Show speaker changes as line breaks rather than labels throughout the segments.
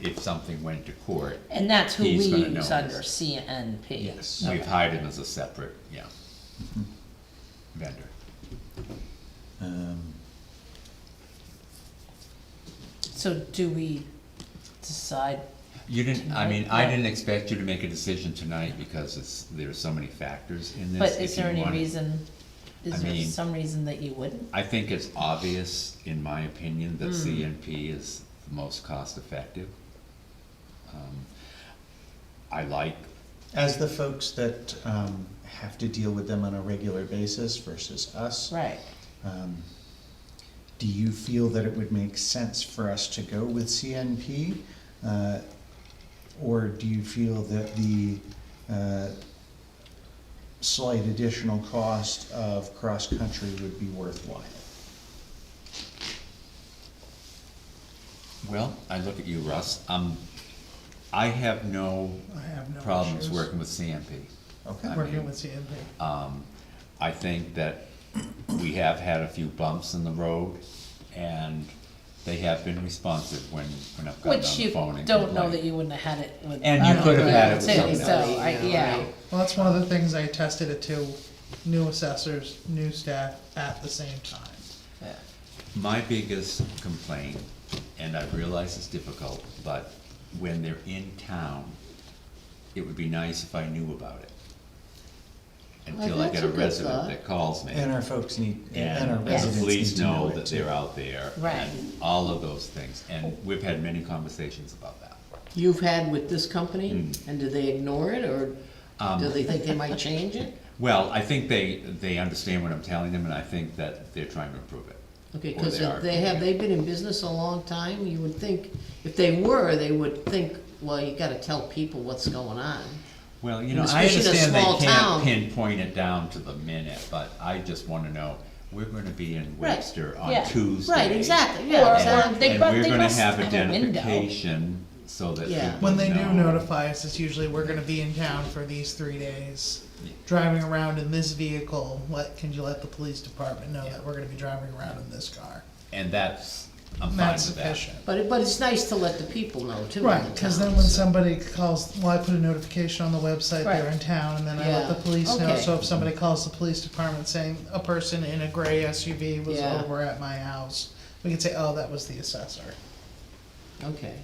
if something went to court.
And that's who we
He's gonna
use
know
under
this.
CNP.
We've
Okay.
hired him as a separate, yeah, vendor.
Um,
So do we decide,
You didn't, I mean, I
Tonight, yeah.
didn't expect you to make a decision tonight because it's, there are so many factors in this.
but
If
is
you
there any
wanted-
reason,
I
is there
mean-
some reason that you wouldn't?
I think it's obvious, in my opinion,
Hmm.
that CNP is the most cost-effective. Um, I like,
As the folks that um, have to deal with them on a regular basis versus us,
Right,
um, do you feel that it would make sense for us to go with CNP? Uh, Or do you feel that the uh, slight additional cost of cross-country would be worthwhile?
well, I look at you, Russ, um, I have no
I have no
problems
issues.
working with CNP.
Okay.
I mean-
Working with CMP.
Um, I think that we have had a few bumps in the road, and they have been responsive when, when I've gotten
which
on the
you
phone and complained.
don't know that you wouldn't have had it with.
And you
other
could have had it
people
with
too,
someone
So, I, yeah,
Well, that's one of the things I tested it to, new assessors, new staff at the same time.
yeah.
My biggest complaint, and I realize it's difficult, but when they're in town, it would be nice if I knew about it. Until I
that's
get a
a good
resident
thought.
that calls me.
And our folks need, and our
And
Yes.
residents
the
need
police
to know
know
it
that
too.
they're out there.
Right.
And all of those things, and we've had many conversations about that.
You've had with this company,
Mm.
and do they ignore it, or do
Um,
they think they might change it?
Well, I think they, they understand what I'm telling them, and I think that they're trying to improve it.
Okay,
Or
because
they are.
they have, they've been in business a long time, you would think, if they were, they would think, well, you gotta tell people what's going on.
Well, you
And
know, I
especially in a
understand
small
they can't
town.
pinpoint it down to the minute, but I just wanna know, we're gonna be in
Right,
Webster on
yeah,
Tuesday.
Right, exactly,
Or-
yeah,
or
exactly.
They
And
prob-
we're
they
gonna
must
have
have a window.
identification so that
Yeah.
people
When they do
know.
notify us, it's usually, we're gonna be in town for these three days.
Yeah.
Driving around in this vehicle, let, can you let the police department know that we're gonna be driving around in this car?
And that's, I'm fine
That's
with that.
sufficient.
But it, but it's nice to let the people know too. in
Right,
the
cause
town,
then when
so-
somebody calls, well, I put a notification on the website, they're
Right.
in town, and then I let
Yeah,
the police know,
okay.
so if somebody calls the police department saying a person in a gray SUV was
Yeah.
over at my house, we can say, oh, that was the assessor.
Okay,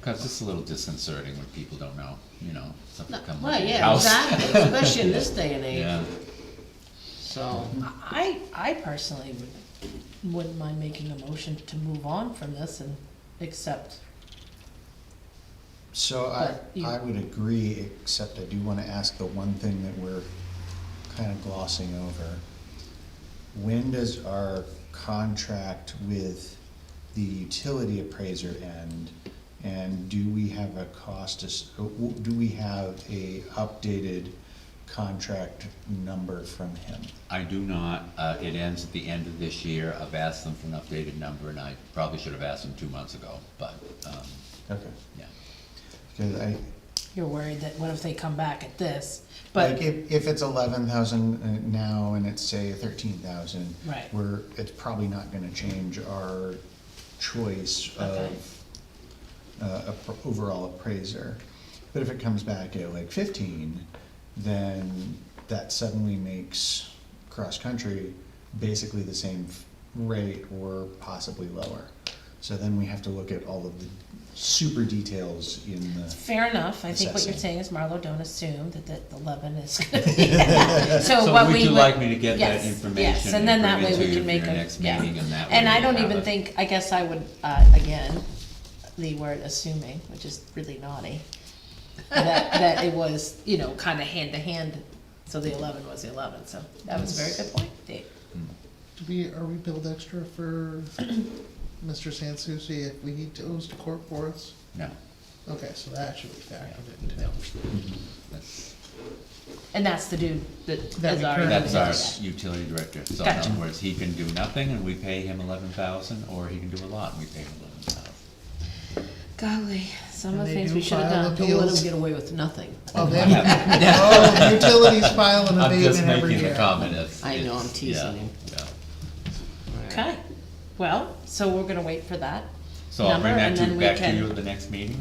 Cause it's a little disconcerting when people don't know, you know, something
No,
comes
well,
in your
yeah,
house.
exactly, especially in this day and
Yeah,
age, so,
I, I personally would, wouldn't mind making a motion to move on from this and accept,
So I,
But you-
I would agree, except I do wanna ask the one thing that we're kinda glossing over. When does our contract with the utility appraiser end? And do we have a cost, as- uh, do we have a updated contract number from him?
I do not, uh, it ends at the end of this year, I've asked them for an updated number, and I probably should have asked them two months ago, but, um,
Okay.
yeah.
Cause I,
you're worried that what if they come back at this?
Like
But,
if, if it's eleven thousand uh, now and it's say thirteen thousand.
Right.
We're, it's probably not gonna change our choice
Okay.
of, uh, appr- overall appraiser. But if it comes back at like fifteen, then that suddenly makes cross-country basically the same f- rate or possibly lower. So then we have to look at all of the super details in the.
fair enough, I think what you're
Assessing.
saying is Marlo, don't assume that, that the eleven is gonna be that. So
So
what we would.
would you like me to get that
yes, Yes,
information
and
and
then that
bring it to
way we
you
can
for
make
your
a,
next
yeah.
meeting and that way?
And I
we
don't
have
even
it.
think, I guess I would, uh, again, the word assuming, which is really naughty, that, that it was, you know, kinda hand to hand, so the eleven was the eleven, so that was a very good point, Dave.
Do we, are we billed extra for Mr. Sansucci if we need to, goes to court for us?
No,
Okay, so that should be factored in too.
that's,
And that's the dude that
That
is already.
we currently-
that's
doing
our
that.
utility director, so in
Gotcha.
other words, he can do nothing and we pay him eleven thousand, or he can do a lot and we pay him eleven thousand.
Golly, some of
And
the
they
things
do
we should have
file
done.
don't let
Appeals.
them get away with nothing.
Oh, they, oh, utilities file an
I'm just
abatement every
making the
year.
comment, it's.
I know, I'm
it's-
teasing
yeah,
him.
yeah.
Okay, well, so we're gonna wait for that.
So I'll
number,
bring that
and
to,
then we
back to
can-
you at the next meeting